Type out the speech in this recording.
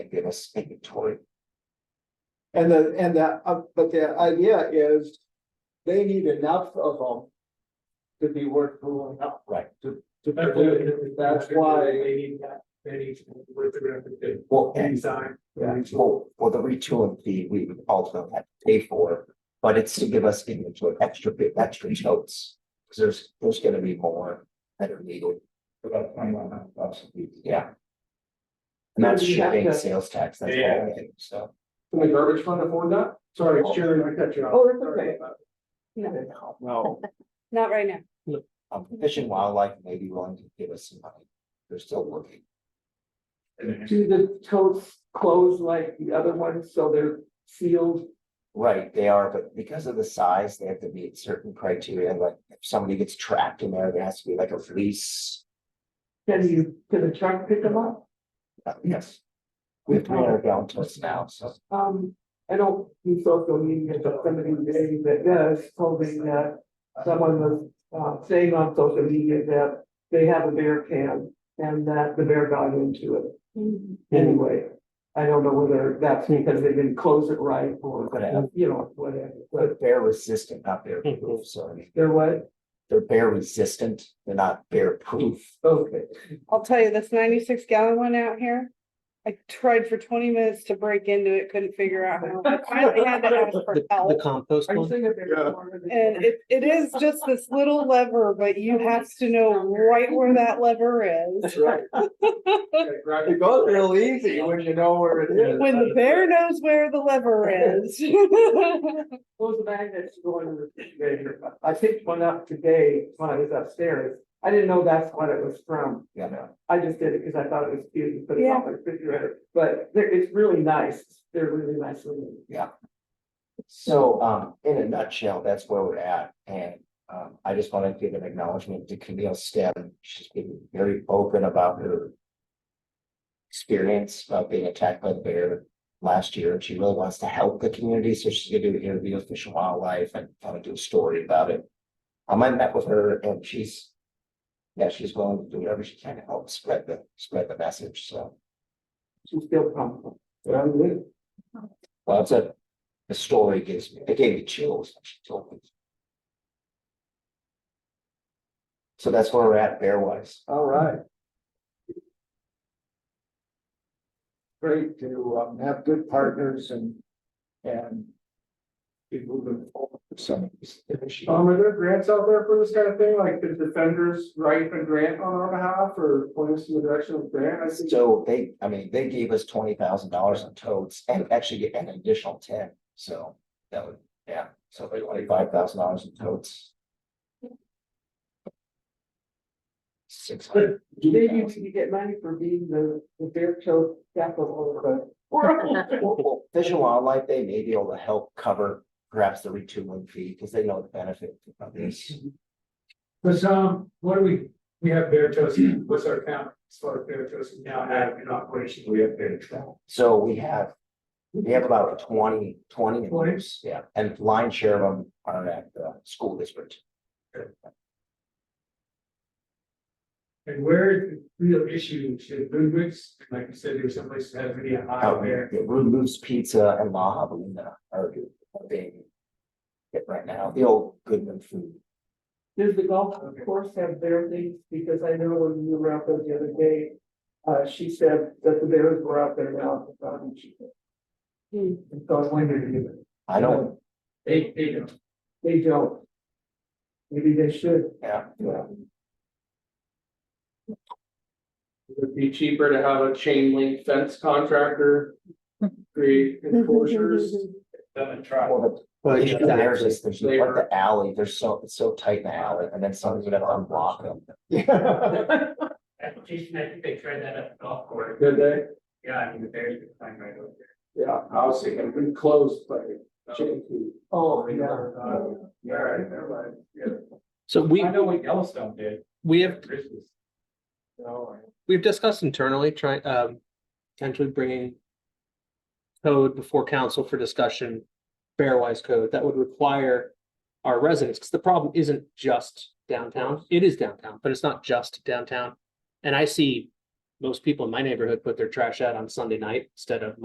give us inventory. And the, and the, uh, but the idea is they need enough of them to be worth pulling up. Right. To, to produce, that's why, They need that, they need to work around the Well, and design. Yeah. well, for the retooling fee, we would also have to pay for, but it's to give us inventory, extra bit, extra totes. Cause there's, there's gonna be more that are needed. About twenty-one hundred bucks a piece. Yeah. And that's Yeah, you have shipping, to- sales tax, that's Yeah. all, in, so. Can the garbage fund afford that? Sorry, Sharon, I cut you off. Oh, that's Sorry okay. about that. No, no, not right now. Um, Fish and Wildlife may be willing to give us some money. They're still working. do the totes close like the other ones, so they're sealed? Right, they are, but because of the size, they have to meet certain criteria, like if somebody gets trapped in there, there has to be like a release. Can you, can the truck pick them up? Uh, Yes. We have three hundred gallon totes now, so. Um, I know you social media, but somebody today that does told me that someone was uh saying on social media that they have a bear can and that the bear got into it anyway. I don't know whether that's because they didn't close it right or, Could have. you know, whatever, but But bear resistant, not bear proof, sorry. there was, They're bear resistant, they're not bear proof. okay. I'll tell you, this ninety-six gallon one out here, I tried for twenty minutes to break into it, couldn't figure out how. I finally had to ask for help. compost Are you saying a bear? Yeah. cornered it? And it, it is just this little lever, but you have to know right where that lever is. Right. Okay, grab your- It goes real easy when you know where it is. When the bear knows where the lever is. Those magnets going to the refrigerator. I picked one up today when I was upstairs. I didn't know that's what it was from. Yeah. I just did it because I thought it was cute and put it on the refrigerator, but they're, it's really nice. They're really nice. little- So, um, in a nutshell, that's where we're at, and, um, I just want to give an acknowledgement to Camille Stem, she's been very open about her. Experience of being attacked by the bear last year, and she really wants to help the community, so she's gonna do an interview with Fish and Wildlife and kind of do a story about it. Um, I met with her and she's. Yeah, she's willing to do whatever she can to help spread the, spread the message, so, She's still comfortable. But I'm good. well, that's a, the story gives me, it gave me chills, when she told me. So that's where we're at bear wise. All right. Great to um, have good partners and, and be moving forward with some of these issues. Um, are there grants out there for this kind of thing? Like the defenders write a grant on our behalf or point us in the direction of grant? I see. So they, I mean, they gave us twenty thousand dollars in totes and actually get an additional ten, so that would, yeah, so twenty-five thousand dollars in totes. Six hundred. Maybe you can get money for being the, the bear show capital of the world. Well, well, Fish and Wildlife, they may be able to help cover perhaps the retooling fee, because they know the benefit of this. Cause um, what do we, we have bear toast, what's our count as far as bear toast now have in operation? We have bear toast. So we have, we have about 20 20 of Twenty? those, yeah, and line share of them are at the school district. And where is the real issue should Ludwig's, like you said, there's someplace that has really a high Out bear. there, Rude Moose Pizza and La Havelina are are being hit right now, the old Goodman food. Does the golf course have bear things? Because I know when we were out there the other day, uh, she said that the bears were out there now. um, she- And So I was wondering if I don't, Hmm. they, they don't. They don't. Maybe they should, yeah, yeah. It'd be cheaper to have a chain link fence contractor create enforcers than try. well, the issue there is just there's like the alley, there's so, it's so tight in the alley, and then somebody's gonna unblock them. Jason, I think they tried that at the golf course. Did they? Yeah, I mean, the Bears could climb right over there. Yeah, I was thinking enclosed by chain link. Oh, Yeah, uh, yeah, all right, never mind. Yeah. So we, I know what Yellowstone did. we have, Christmas. No, we've discussed internally trying, um, potentially bringing code before council for discussion, Fairwise code that would require our residents, because the problem isn't just downtown. It is downtown, but it's not just downtown. And I see most people in my neighborhood put their trash out on Sunday night instead of